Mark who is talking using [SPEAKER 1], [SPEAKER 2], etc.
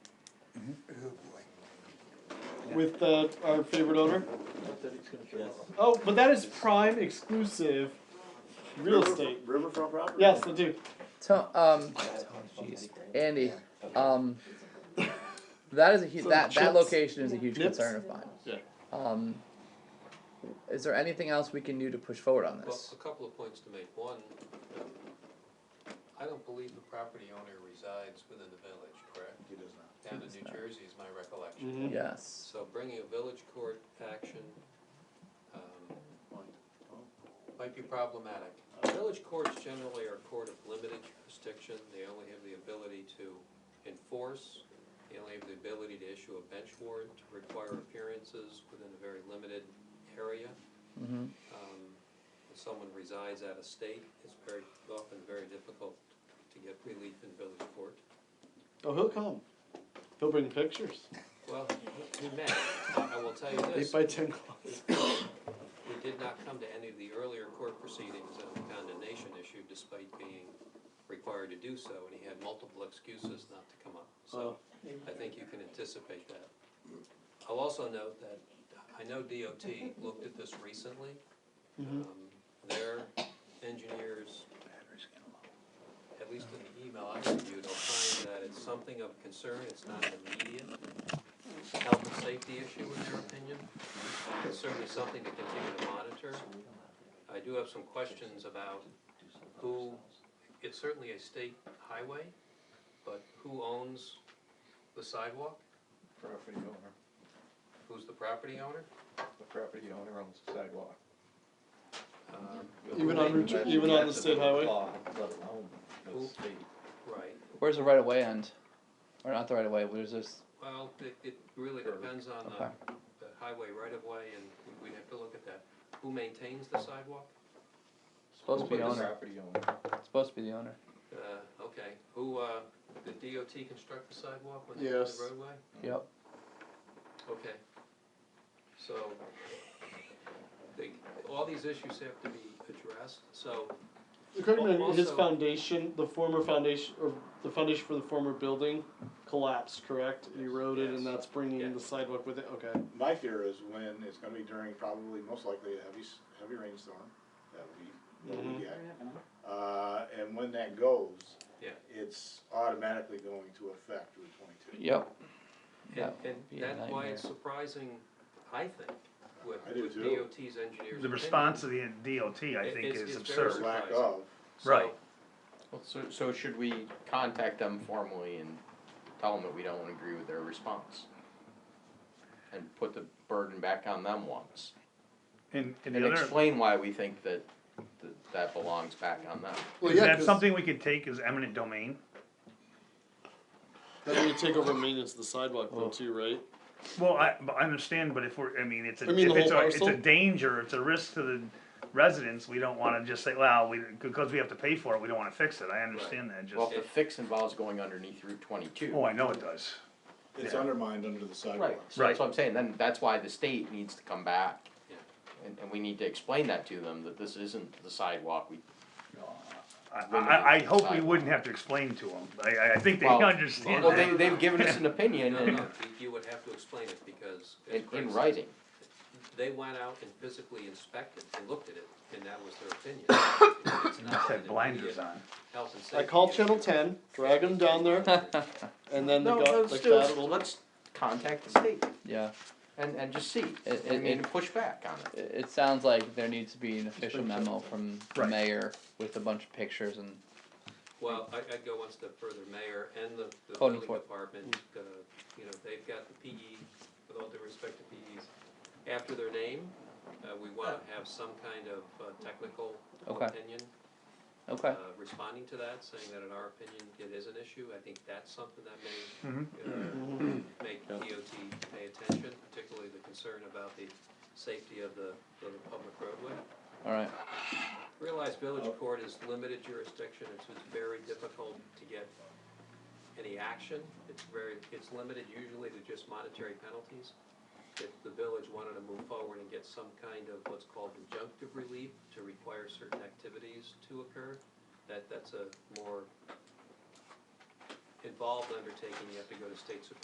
[SPEAKER 1] with uh, our favorite owner.
[SPEAKER 2] Yes.
[SPEAKER 1] Oh, but that is prime exclusive real estate.
[SPEAKER 2] Riverfront property?
[SPEAKER 1] Yes, I do.
[SPEAKER 3] To, um, jeez, Andy, um, that is a huge, that, that location is a huge
[SPEAKER 1] Nips.
[SPEAKER 3] concern of mine.
[SPEAKER 1] Yeah.
[SPEAKER 3] Um, is there anything else we can do to push forward on
[SPEAKER 4] Well,
[SPEAKER 3] this?
[SPEAKER 4] a couple of points to make. One, um, I don't believe the property owner resides within the village, correct?
[SPEAKER 2] He does not. Mm-hmm.
[SPEAKER 4] Down in
[SPEAKER 3] Yes,
[SPEAKER 4] New
[SPEAKER 3] sir.
[SPEAKER 4] Jersey is my
[SPEAKER 1] Mhm.
[SPEAKER 4] recollection.
[SPEAKER 3] Yes,
[SPEAKER 4] So bringing a village court action, um, might be problematic. Village courts generally are a court of limited jurisdiction, they only have the ability to enforce, they only have the ability to issue a bench warrant, to require appearances within a very limited area.
[SPEAKER 3] Mhm.
[SPEAKER 4] Um, If someone resides out of state, it's very, often very difficult to get relief in village court.
[SPEAKER 1] Oh, he'll come. He'll bring pictures.
[SPEAKER 4] Well, he may, I I will tell you this,
[SPEAKER 1] Eight by ten closet.
[SPEAKER 4] We did not come to any of the earlier court proceedings on the condemnation issue despite being required to do so, and he had multiple excuses not to come up. So I think you can anticipate that. I'll also note that I know DOT looked at this recently.
[SPEAKER 1] Mhm.
[SPEAKER 4] Um, Their engineers, at least in the email I reviewed, opined that it's something of concern, it's not an immediate health and safety issue in their opinion. It's certainly something to continue to monitor. I do have some questions about who, it's certainly a state highway, but who owns the sidewalk?
[SPEAKER 5] Property owner,
[SPEAKER 4] Who's the property owner?
[SPEAKER 5] the property owner owns the sidewalk.
[SPEAKER 4] Um,
[SPEAKER 1] Even on Route, two- even on the state highway.
[SPEAKER 5] Law, Let alone the state.
[SPEAKER 4] Right,
[SPEAKER 3] where's the right of way end? Or not the right of way, where's this,
[SPEAKER 4] well, it, it really depends on the, the highway right of way and we- we'd have to look at that. Who maintains the sidewalk?
[SPEAKER 3] supposed to be
[SPEAKER 5] Who's the
[SPEAKER 3] owner,
[SPEAKER 5] Property owner.
[SPEAKER 3] it's supposed to be the owner,
[SPEAKER 4] Uh, okay, who, uh, did DOT construct the sidewalk when they did
[SPEAKER 1] Yes.
[SPEAKER 4] the roadway?
[SPEAKER 3] yep.
[SPEAKER 4] Okay. So, they, all these issues have to be addressed, so,
[SPEAKER 1] According to his
[SPEAKER 4] Also-
[SPEAKER 1] foundation, the former foundation, or the foundation for the former building collapsed, correct? It Eroded and
[SPEAKER 2] Yes.
[SPEAKER 1] that's bringing
[SPEAKER 4] Yeah.
[SPEAKER 1] the sidewalk with it, okay.
[SPEAKER 2] My fear is when it's gonna be during probably most likely a heavy, s- heavy rainstorm, that we, that
[SPEAKER 1] Mm-hmm.
[SPEAKER 2] we get. Uh, and when that goes.
[SPEAKER 4] Yeah.
[SPEAKER 2] It's automatically going to affect Route twenty-two.
[SPEAKER 3] Yep,
[SPEAKER 4] and,
[SPEAKER 3] That would
[SPEAKER 4] and
[SPEAKER 3] be a
[SPEAKER 4] that's why it's
[SPEAKER 3] nightmare.
[SPEAKER 4] surprising, I think, with,
[SPEAKER 2] I do
[SPEAKER 4] with
[SPEAKER 2] too.
[SPEAKER 4] DOT's engineers'
[SPEAKER 6] The
[SPEAKER 4] opinion.
[SPEAKER 6] response of the DOT, I
[SPEAKER 4] It-
[SPEAKER 6] think,
[SPEAKER 4] it's-
[SPEAKER 6] is
[SPEAKER 4] it's very
[SPEAKER 6] absurd.
[SPEAKER 2] Lack
[SPEAKER 4] Surprising.
[SPEAKER 2] of,
[SPEAKER 4] So,
[SPEAKER 6] Right.
[SPEAKER 7] Well, so, so should we contact them formally and tell them that we don't agree with their response? And put the burden back on them once,
[SPEAKER 6] And, and
[SPEAKER 7] and
[SPEAKER 6] the other,
[SPEAKER 7] explain why we think that, that that belongs back on them.
[SPEAKER 1] Well,
[SPEAKER 6] is
[SPEAKER 1] yeah,
[SPEAKER 6] that
[SPEAKER 1] 'cause
[SPEAKER 6] something we could take as eminent domain?
[SPEAKER 1] Then we take over maintenance of the sidewalk though
[SPEAKER 3] Oh.
[SPEAKER 1] too, right?
[SPEAKER 6] Well, I, but I understand, but if we're, I mean, it's a,
[SPEAKER 1] I mean
[SPEAKER 6] if
[SPEAKER 1] the
[SPEAKER 6] it's
[SPEAKER 1] whole
[SPEAKER 6] a, it's a
[SPEAKER 1] parcel?
[SPEAKER 6] danger, it's a risk to the residents, we don't wanna just say, well, we, because we have to pay for it, we don't wanna fix it, I understand that,
[SPEAKER 7] Well,
[SPEAKER 6] just,
[SPEAKER 7] if the fix involves going underneath Route twenty-two.
[SPEAKER 6] oh, I know it does.
[SPEAKER 2] it's
[SPEAKER 6] Yeah.
[SPEAKER 2] undermined under the
[SPEAKER 7] Right,
[SPEAKER 2] sidewalk.
[SPEAKER 7] so that's what I'm saying, then that's why the state needs to come back.
[SPEAKER 4] Yeah.
[SPEAKER 7] And, and we need to explain that to them, that this isn't the sidewalk, we,
[SPEAKER 6] I, I, I hope we wouldn't have to explain to them, I- I, I think they
[SPEAKER 7] Well-
[SPEAKER 6] understand
[SPEAKER 7] well, they,
[SPEAKER 6] that.
[SPEAKER 7] they've given us an opinion
[SPEAKER 4] No, no,
[SPEAKER 7] and,
[SPEAKER 4] you, you would have to explain it because. as
[SPEAKER 7] in,
[SPEAKER 4] Craig
[SPEAKER 7] in
[SPEAKER 4] said,
[SPEAKER 7] writing.
[SPEAKER 4] They went out and physically inspected and looked at it, and that was their opinion. It's not
[SPEAKER 6] Had
[SPEAKER 4] an
[SPEAKER 6] blinders
[SPEAKER 4] immediate
[SPEAKER 6] on,
[SPEAKER 4] Health and safety.
[SPEAKER 1] I called
[SPEAKER 4] issue.
[SPEAKER 1] Channel Ten, drag them down there, and then they
[SPEAKER 7] No,
[SPEAKER 1] got
[SPEAKER 7] let's
[SPEAKER 1] like
[SPEAKER 7] do
[SPEAKER 1] that.
[SPEAKER 7] it, let's contact the state
[SPEAKER 3] yeah.
[SPEAKER 7] and, and just see,
[SPEAKER 3] It-
[SPEAKER 7] I
[SPEAKER 3] it-
[SPEAKER 7] mean,
[SPEAKER 3] it-
[SPEAKER 7] push back on it.
[SPEAKER 3] It, it sounds like there needs to be an official memo from the
[SPEAKER 6] Right.
[SPEAKER 3] mayor with a bunch of pictures and
[SPEAKER 4] Well, I, I'd go one step further, mayor and the, the
[SPEAKER 3] Code
[SPEAKER 4] building
[SPEAKER 3] enfor-
[SPEAKER 4] department, uh, you know, they've got the PE, with all due respect to PEs, after their name, uh, we wanna have some kind of, uh, technical
[SPEAKER 3] Okay.
[SPEAKER 4] opinion, uh,
[SPEAKER 3] okay.
[SPEAKER 4] responding to that, saying that in our opinion, it is an issue, I think that's something that
[SPEAKER 6] Mhm.
[SPEAKER 4] may, uh, make DOT pay attention, particularly the concern about the safety of the, of the public roadway.
[SPEAKER 3] All right.
[SPEAKER 4] Realize village court is limited jurisdiction, it's, it's very difficult to get any action. It's very, it's limited usually to just monetary penalties. If the village wanted to move forward and get some kind of what's called injunctive relief to require certain activities to occur, that, that's a more involved undertaking, you have to go to state supreme